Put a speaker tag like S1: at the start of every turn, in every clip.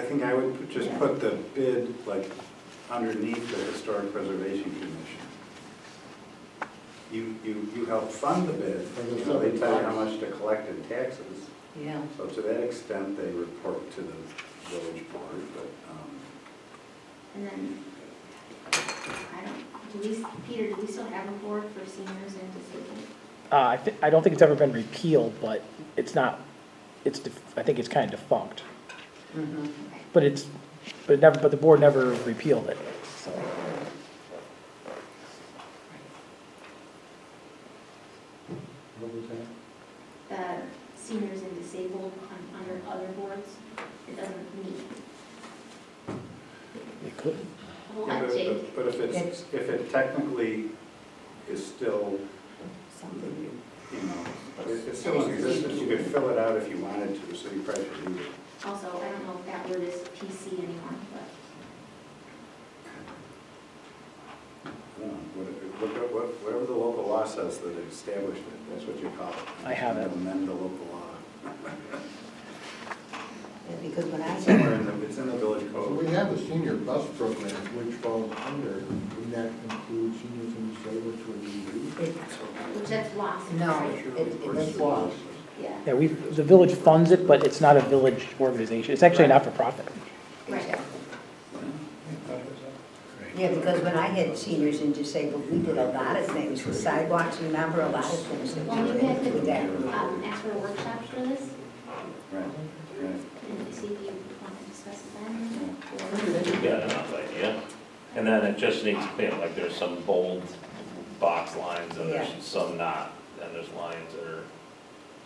S1: think I would put- just put the bid like underneath the Historic Preservation Commission. You, you, you help fund the bid, you know, they tell you how much to collect in taxes.
S2: Yeah,
S1: So to that extent, they report to the village board, but, um,
S3: And then, I don't, do we, Peter, do we still have a board for seniors and disabled?
S4: Uh, I thi- I don't think it's ever been repealed, but it's not, it's, def- I think it's kind of defunct.
S2: mhm.
S3: Okay.
S4: But it's, but it never, but the board never repealed it, so.
S5: What was that?
S3: The uh, seniors and disabled on, under other boards, it doesn't need
S4: It could.
S3: a whole
S1: yeah,
S3: lot,
S1: but
S3: Jake.
S1: if- but if it's, if it technically is still,
S2: Something you-
S1: you know, it- it's still in existence, you could fill it out if you wanted to, so you probably should leave it.
S3: Also, I don't know if that word is PC anymore, but
S1: No, what- what- what- Whatever the local law says that established it, that's what you call it.
S4: I have it.
S1: Amend the local law.
S2: Yeah, Because when I
S1: It's
S2: said,
S1: somewhere in the, it's in the village
S5: So
S1: code.
S5: we have a senior bus program which falls under, would that include seniors and disabled to be
S2: it,
S3: which that's lost.
S2: no,
S3: right?
S2: it, it was lost.
S3: Yeah,
S4: Yeah, we, the village funds it, but it's not a village organization. It's actually a not-for-profit.
S3: right.
S2: Yeah, because when I had seniors and disabled, we did a lot of things, the sidewalks, remember, a lot of things that
S3: Well, we
S2: we did
S3: have
S2: with that.
S3: to, um, ask for workshops for this,
S1: Right, right.
S3: and see if you want to discuss it then.
S6: You've got enough idea. And then it just needs, you know, like there's some bold box lines and there's
S2: Yeah.
S6: some not, and there's lines that are,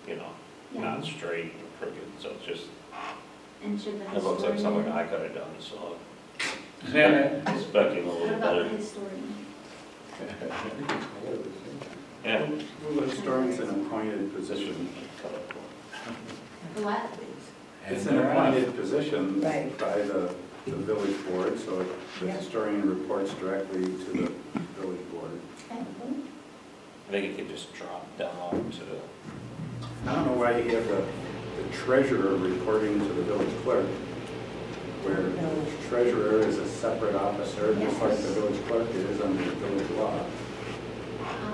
S6: you know,
S3: Yeah,
S6: not straight and crooked, so it's just,
S3: and should the
S6: it looks like something
S3: historian,
S6: I could have done, so.
S7: Yeah,
S6: Expecting a
S3: what
S6: little
S3: about the
S6: better,
S3: historian?
S6: yeah.
S1: Well, the historian's an appointed position.
S3: The What?
S1: It's an appointed position by
S2: Right.
S1: the, the village board, so it- the
S2: Yeah.
S1: historian reports directly to the village board.
S6: I think it could just drop down to the
S1: I don't know why you have the the treasurer reporting to the village clerk, where
S2: No.
S1: treasurer is a separate officer, just like the village clerk is under the village law.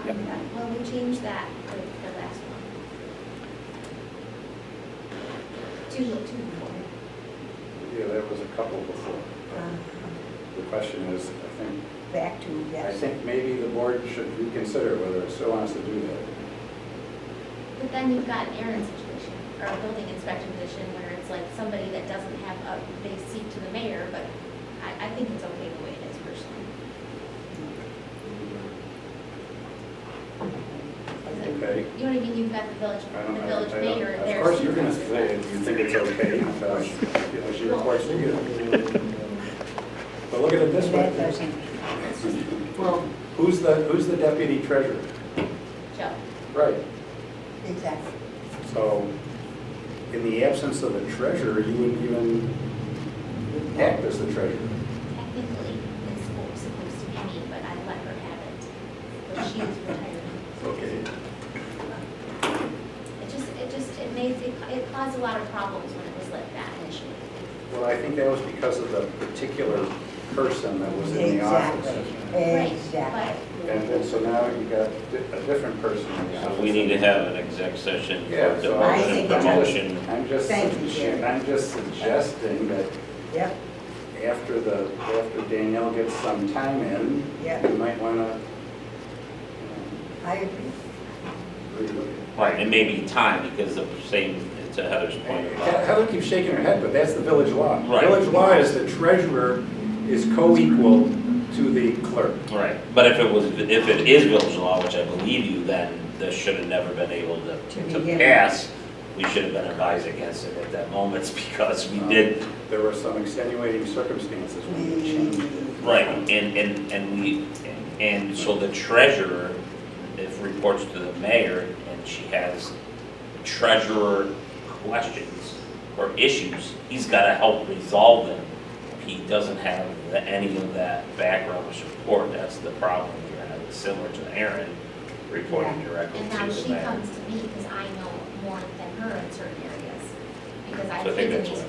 S3: Um, Well, we changed that for the last one. Two, two before.
S1: Yeah, there was a couple before.
S2: Um,
S1: The question is, I think,
S2: Back to,
S1: I
S2: yes,
S1: think maybe the board should reconsider whether it still wants to do that.
S3: But then you've got an Aaron situation, or a building inspector position, where it's like somebody that doesn't have a, they seat to the mayor, but I, I think it's okay the way it is personally.
S1: Okay?
S3: You know what I mean, you've got the village,
S1: I don't-
S3: the
S1: I
S3: village
S1: don't- I don't-
S3: mayor, there's.
S1: Of course, you're gonna say, it. you think it's okay, uh, because you know, she reports to you. But look at it this
S2: that
S1: way.
S2: doesn't,
S5: Well,
S1: Who's the, who's the deputy treasurer?
S3: Joe,
S1: Right.
S2: exactly.
S1: So, in the absence of a treasurer, you wouldn't even act as the treasurer.
S3: technically, it's supposed to be me, but I let her have it, but she is retired.
S1: Okay.
S3: It just, it just, it made, it caused a lot of problems when it was like that initially.
S1: Well, I think that was because of the particular person that was in the office.
S2: Exactly, exactly.
S3: Right,
S1: And then, so now you got di- a different person in the office.
S6: So we need to have an exec session
S1: Yeah,
S6: for
S1: so I
S6: demotion,
S2: think it's-
S6: promotion.
S1: I'm just,
S2: Thank you, Jerry.
S1: I'm just suggesting that
S2: Yep,
S1: after the, after Danielle gets some time in,
S2: Yeah.
S1: you might want to
S2: I agree.
S1: relook at
S6: Right, and maybe time, because the same, to Heather's point
S1: He-
S6: about,
S1: Heather keeps shaking her head, but that's the village law.
S6: Right.
S1: Village law is the treasurer is co-equal to the clerk.
S6: right, but if it was, if it is village law, which I believe you, then this should have never been able to,
S2: To
S6: to
S2: begin.
S6: pass. We should have been advised against it at that moment, because we did,
S1: There were some extenuating circumstances when you changed it.
S6: right, and, and, and we, and so the treasurer, if reports to the mayor, and she has treasurer questions or issues, he's gotta help resolve them. He doesn't have the- any of that background or support, that's the problem here, and it's similar to Aaron reporting directly
S3: and
S6: to
S3: now
S6: the
S3: she
S6: mayor.
S3: comes to me because I know more than her in certain areas, because
S6: So I
S3: I've
S6: think
S3: been in
S6: that's
S3: these
S6: why-